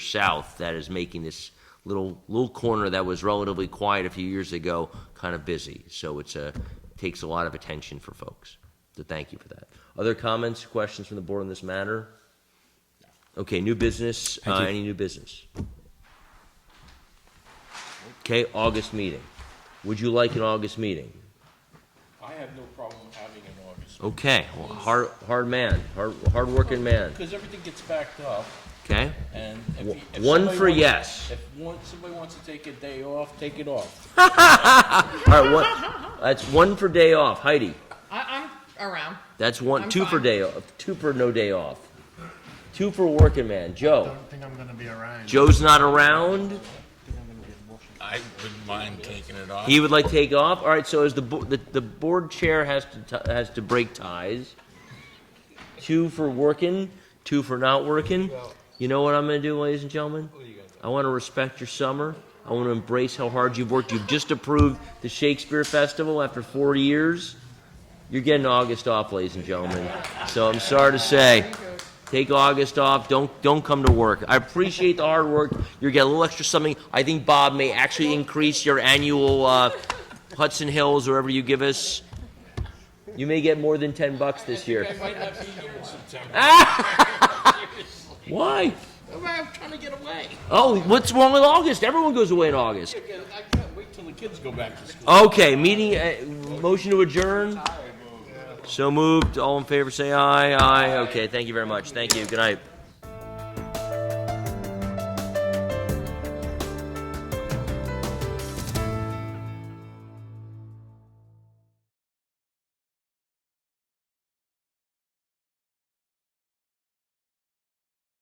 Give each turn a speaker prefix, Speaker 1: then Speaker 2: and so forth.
Speaker 1: south that is making this little, little corner that was relatively quiet a few years ago, kind of busy. So it's a, takes a lot of attention for folks. So thank you for that. Other comments, questions from the board on this matter? Okay, new business, uh,
Speaker 2: you.
Speaker 1: any new business? Okay, August meeting. Would you like an August meeting?
Speaker 3: I have no problem having an August.
Speaker 1: Okay, well, hard, hard man, hard, hard-working man,
Speaker 3: Because everything gets backed up
Speaker 1: okay?
Speaker 3: and if.
Speaker 1: W-
Speaker 3: you- if
Speaker 1: one
Speaker 3: somebody
Speaker 1: for
Speaker 3: wants-
Speaker 1: yes.
Speaker 3: If one, somebody wants to take a day off, take it off.
Speaker 1: All right, one, that's one for day off, Heidi.
Speaker 4: I, I'm around.
Speaker 1: That's one,
Speaker 4: I'm
Speaker 1: two for
Speaker 4: fine.
Speaker 1: day off, two for no day off. Two for working man, Joe.
Speaker 5: don't think I'm gonna be around.
Speaker 1: Joe's not around,
Speaker 3: I wouldn't mind taking it off.
Speaker 1: he would like to take off, all right, so as the, bo- the, the board chair has to, ti- has to break ties. Two for working, two for not working. You know what I'm gonna do, ladies and gentlemen? I wanna respect your summer, I wanna embrace how hard you've worked, you've just approved the Shakespeare Festival after four years. You're getting August off, ladies and gentlemen, so I'm sorry to say. Take August off. Don't don't come to work. I appreciate the hard work. You get a little extra something. I think Bob may actually increase your annual uh, Hudson Hills, wherever you give us. You may get more than ten bucks this year.
Speaker 3: I might not be here in September. Seriously.
Speaker 1: Why?
Speaker 3: I'm trying to get away.
Speaker 1: Oh, what's wrong with August? Everyone goes away in August.
Speaker 3: I can't wait till the kids go back to school.
Speaker 1: Okay, meeting. Uh, motion to adjourn. So moved. All in favor, say aye. Aye. Okay. Thank you very much. Thank you. Good night.